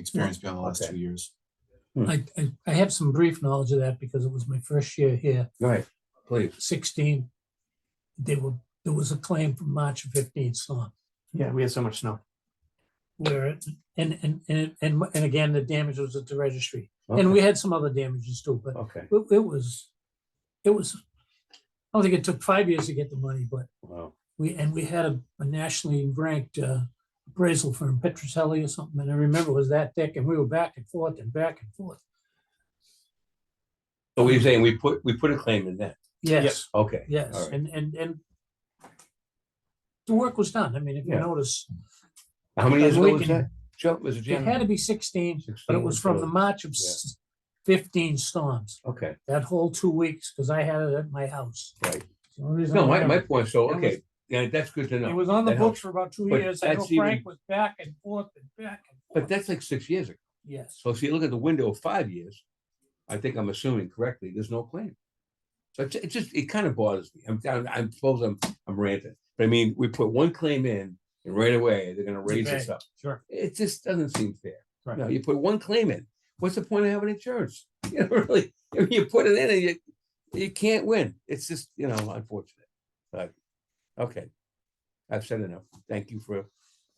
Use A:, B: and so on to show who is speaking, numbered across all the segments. A: experience beyond the last
B: Okay.
A: two years.
C: I, I, I have some brief knowledge of that because it was my first year here,
B: Right, please.
C: sixteen. They were, there was a claim from March of fifteen storm
D: Yeah, we had so much snow.
C: where, it- and, and, and, and and again, the damage was at the registry. And
B: Okay,
C: we had some other damages too, but
B: Okay,
C: it, it was, it was, I don't think it took five years to get the money, but
B: wow,
C: we, and we had a a nationally ranked uh, appraisal firm, Petroselli or something, and I remember it was that thick and we were back and forth and back and forth.
B: so we're saying we put, we put a claim in that,
C: Yes.
B: okay. all
C: Yes,
B: right.
C: and, and, and the work was done. I mean, if you
B: Yeah.
C: notice,
B: How many years
C: And
B: ago
C: we
B: was
C: can-
B: that? Joe, was it
C: it had
B: January?
C: to be sixteen, but it was from the March of
B: Yeah.
C: s- fifteen storms,
B: Okay,
C: that whole two weeks, because I had it at my house.
B: right.
C: It's the only reason I
B: No, my, my
C: remember.
B: point, so,
C: That
B: okay, yeah, that's good to
C: It
B: know.
C: was on the
B: that
C: books for about two
B: But
C: years. I know
B: that's even-
C: Frank was back and forth and back and
B: But
C: forth.
B: that's like six years ago.
C: Yes,
B: So if you look at the window of five years, I think I'm assuming correctly, there's no claim. So it's- it just, it kind of bothers me. I'm, I'm, I suppose I'm, I'm ranting. But I mean, we put one claim in and right away, they're gonna raise this
C: Okay.
B: up.
C: sure.
B: It just doesn't seem fair.
D: Right.
B: No, you put one claim in. What's the point of having insurance? You know, really, I mean, you put it in and you, you can't win. It's just, you know, unfortunate. But, okay. I've said enough. Thank you for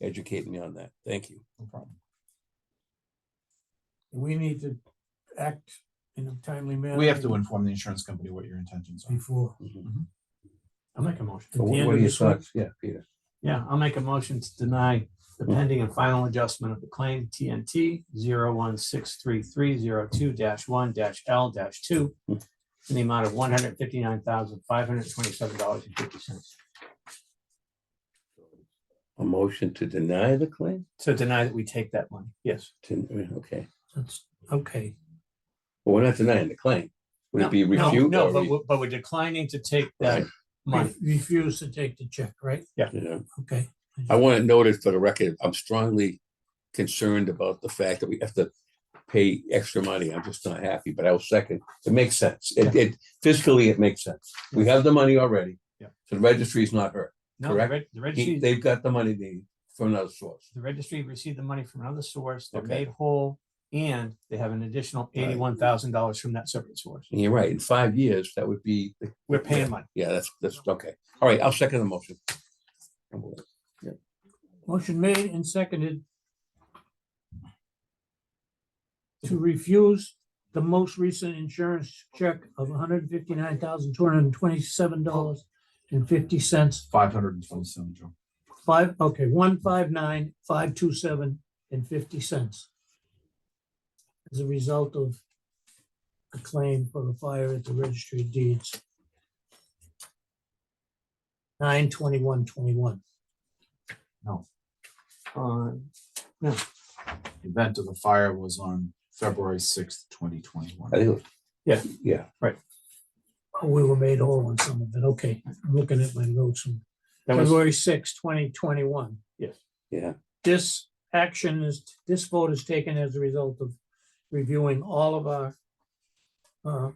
B: educating me on that. Thank you.
C: We need to act in a timely manner.
A: We have to inform the insurance company what your intentions are.
C: Before.
D: I'll make a motion.
C: At the
B: So what
C: end
B: what are
C: of
B: your
C: this week,
B: thoughts? Yeah, Peter.
D: Yeah, I'll make a motion to deny the pending and final adjustment of the claim TNT zero one six three three zero two dash one dash L dash two in the amount of one hundred fifty-nine thousand, five hundred twenty-seven dollars and fifty cents.
B: A motion to deny the claim?
D: So deny that we take that money. Yes.
B: To- Okay,
C: That's, okay.
B: well, we're not denying the claim. Would
D: No,
B: it be
D: no,
B: refute?
D: No,
B: or
D: but
B: re-
D: we're, but we're declining to take that
B: Right.
D: money.
C: Refuse to take the check, right?
B: you know?
C: Okay.
B: I want to note it for the record, I'm strongly concerned about the fact that we have to pay extra money. I'm just not happy, but I will second. It makes sense. It, it fiscally, it makes sense. We have the money already.
D: Yeah.
B: So the registry's not hurt.
D: No, the
B: Correct.
D: reg- the
B: He-
D: registry,
B: They've got the money they need from another source.
D: the registry received the money from another source. They're
B: Okay.
D: made whole and they have an additional
B: Right.
D: eighty-one thousand dollars from that separate source.
B: And you're right, in five years, that would be the
D: We're paying money.
B: Yeah, that's, that's, okay. All right, I'll second the motion. And we'll-
C: Motion made and seconded to refuse the most recent insurance check of one hundred fifty-nine thousand, two hundred and twenty-seven dollars and fifty cents.
A: Five hundred and twenty-seven, Joe.
C: Five, okay, one, five, nine, five, two, seven, and fifty cents as a result of a claim for a fire at the registry of deeds. Nine, twenty-one, twenty-one.
D: on
A: Event of the fire was on February sixth, twenty twenty-one.
B: I think, it was-
D: Yeah.
B: yeah,
C: Oh, We were made whole on some of it. Okay, I'm looking at my notes. from
D: That was,
C: February sixth, twenty twenty-one.
D: yes,
B: yeah,
C: This action is, this vote is taken as a result of reviewing all of our uh,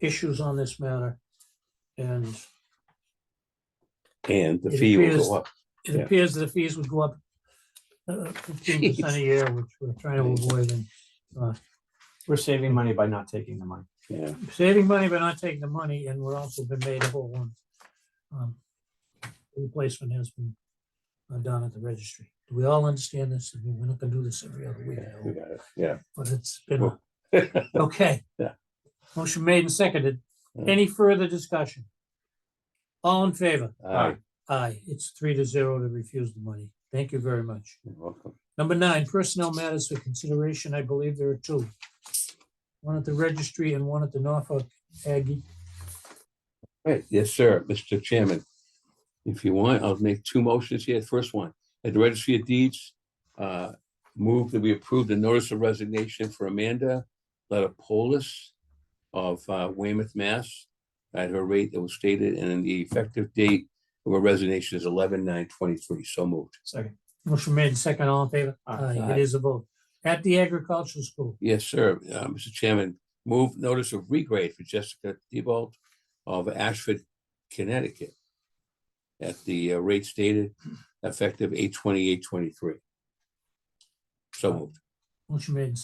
C: issues on this matter. And
B: and the
C: It
B: fee will
C: appears-
B: go up.
C: it
B: Yeah.
C: appears that the fees would go up uh, fifteen percent
B: Jeez.
C: a year, which we're trying to avoid and
D: we're saving money by not taking the money.
B: Yeah,
C: saving money but not taking the money, and we're also been made whole on. um, Replacement has been uh, done at the registry. Do we all understand this? I mean, we're not gonna do this every other week, I
B: yeah, we
C: hope,
B: got it, yeah.
C: but it's been, a- okay.
B: Yeah.
C: Motion made and seconded.
B: Yeah.
C: Any further discussion? All in favor?
B: All right,
C: Aye, it's three to zero to refuse the money. Thank you very much.
B: you're welcome.
C: Number nine, personnel matters for consideration. I believe there are two. One at the registry and one at the Norfolk Aggie.
B: Right, yes, sir, Mr. Chairman. If you want, I'll make two motions here. First one, at the registry of deeds, uh, move that we approve the notice of resignation for Amanda Letopolis of uh, Weymouth, Mass. At her rate that was stated, and then the effective date of her resignation is eleven nine twenty-three. So moved.
D: Second,
C: Motion made, second, all in favor?
D: Aye.
C: Aye, It is a vote. At the agricultural school,
B: Yes, sir. Uh, Mr. Chairman, move notice of regrade for Jessica Diebold of Ashford, Connecticut at the uh, rate stated effective eight twenty-eight twenty-three. So moved.
C: Motion made and